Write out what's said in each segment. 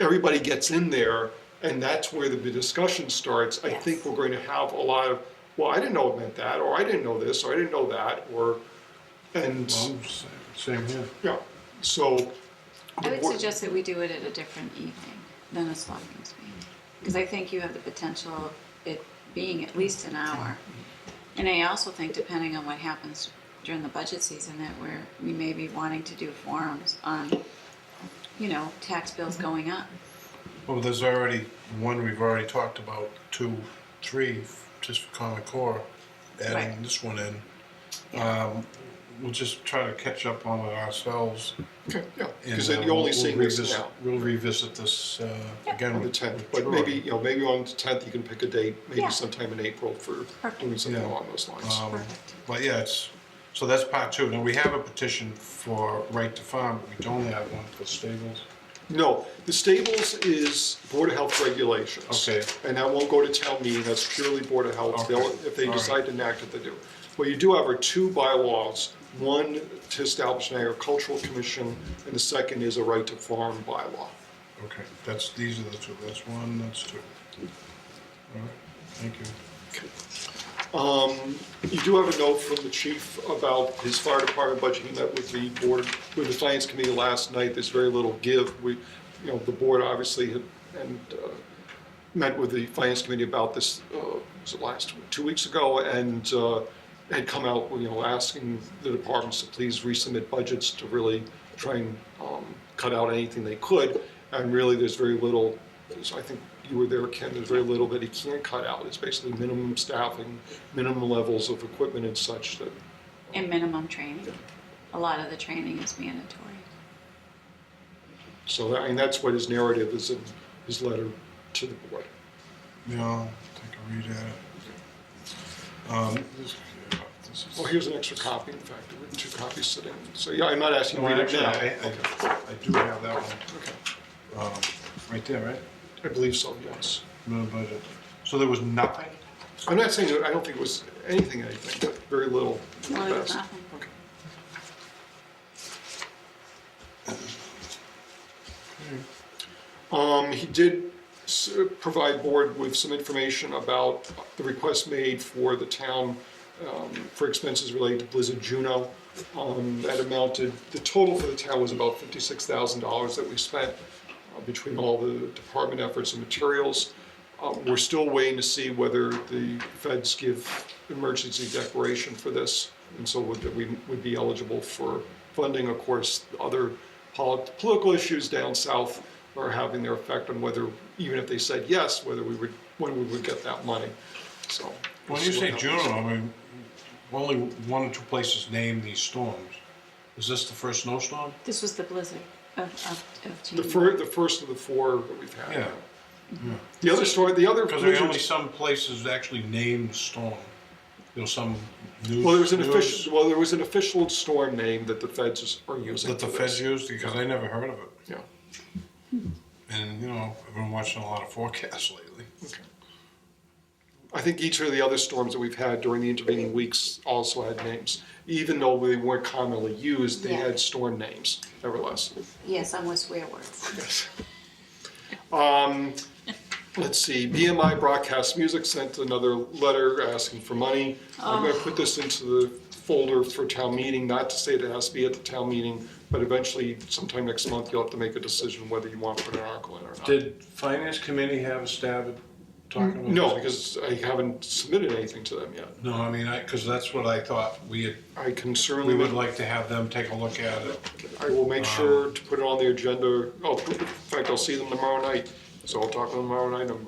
everybody gets in there, and that's where the discussion starts, I think Yes. we're going to have a lot of, well, I didn't know it meant that, or I didn't know this, or I didn't know that, or, and, Well, s- Same here. yeah, so. I would Or- suggest that we do it at a different evening than a selectmen's meeting, because I think you have the potential of it being at least an hour. And I also think, depending on what happens during the budget season, that we're, we may be wanting to do forums on, you know, tax bills going up. Well, there's already, one we've already talked about, two, three, f- just for Common Core, adding Right. this one in. Yeah. Um, We'll just try to catch up on it ourselves. Okay, yeah, and, because uh, then you're only we'll seeing this revisit- now. We'll revisit this uh, again. on the with- tenth, with but Troy. maybe, you know, maybe on the tenth, you can pick a date, maybe Yeah. sometime in April for Perfect. doing something Yeah. along those lines. Um, Perfect. But yeah, it's, so that's part two. Now, we have a petition for right to farm, but we don't have one for stables. No, the stables is Board of Health regulations. Okay. And that won't go to town meeting, that's purely Board of Health, they'll, Okay, if they all right. decide to enact it, they do. What you do have are two bylaws, one to establish an agricultural commission, and the second is a right to farm bylaw. Okay, that's, these are the two, that's one, that's two. All right, thank you. Um, You do have a note from the chief about his fire department budget. He met with the board, with the finance committee last night. There's very little give. We, you know, the board obviously had, and uh, met with the finance committee about this, uh, was it last, two weeks ago? And uh, had come out, you know, asking the departments to please resubmit budgets to really try and um, cut out anything they could. And really, there's very little, there's- I think you were there, Ken, there's very little that he can cut out. It's basically minimum staffing, minimum levels of equipment and such that, And minimum training. A lot of the training is mandatory. so, I mean, that's what his narrative is in his letter to the board. Yeah, I'll take a read at it. Um, this- yeah, this is- Well, here's an extra copy, in fact, there were two copies sitting. So, yeah, I'm not asking No, you to read it actually, now. I, I, I do have that one, Okay. um, right there, right? I believe so, yes. No budget. So there was nothing? I'm not saying, that I don't think it was anything, anything, but very little. at No, there was best. nothing. Okay. Um, he did s- provide board with some information about the request made for the town um, for expenses related to Blizzard Juno. Um, that amounted, the total for the town was about fifty-six thousand dollars that we spent uh, between all the department efforts and materials. Um, we're still waiting to see whether the feds give emergency declaration for this, and so would, that we would be eligible for funding. Of course, other polit- political issues down south are having their effect on whether, even if they said yes, whether we would, when we would get that money, so. When you say Juno, I mean, only one or two places name these storms. Is this the first snowstorm? This was the blizzard of, of, of The January. fir, the first of the four that we've had. Yeah, The other story, the other. because there are only some places actually name the storm. You know, some news. Well, there was an news official, well, there was an official storm name that the feds are using. That the for this. feds used, because I never heard of it. Yeah, And, you know, I've been watching a lot of forecasts lately. okay. I think each of the other storms that we've had during the intervening weeks also had names. Even though they weren't commonly used, they Yeah. had storm names nevertheless. Yes, I'm with swear words. Let's see, BMI Broadcast Music sent another letter asking for money. I'm gonna put this into the folder for town meeting, not to say that it has to be at the town meeting, but eventually sometime next month, you'll have to make a decision whether you want to put an article in or not. Did finance committee have a stab at talking about? No, this? because I haven't submitted anything to them yet. No, I mean, I, because that's what I thought, we had, I can we certainly, would like to have them take a look at it. I will make sure to put it on the agenda. Oh, in fact, I'll see them tomorrow night, so I'll talk to them tomorrow night. Um,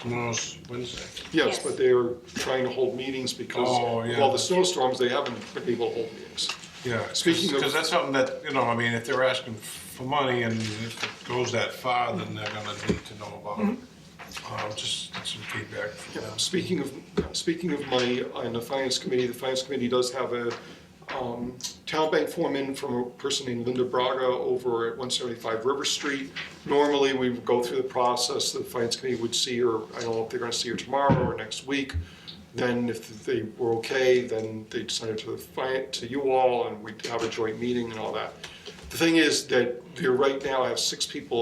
Tomorrow's Wednesday. Yes, Yes. but they are trying to hold meetings because Oh, of yeah. all the snowstorms, they haven't been able to hold meetings. Yeah, Speaking of- because that's something that, you know, I mean, if they're asking for money and if it goes that far, then they're gonna need to know about it. Mm-hmm. Um, just get some feedback from them. Speaking of, speaking of money, on the finance committee, the finance committee does have a um, town bank foreman from a person named Linda Braga over at 175 River Street. Normally, we would go through the process, the finance committee would see her, I don't know if they're gonna see her tomorrow or next week. Then if they were okay, then they'd send it to the, fi- to you all, and we'd have a joint meeting and all that. The thing is that they right now have six people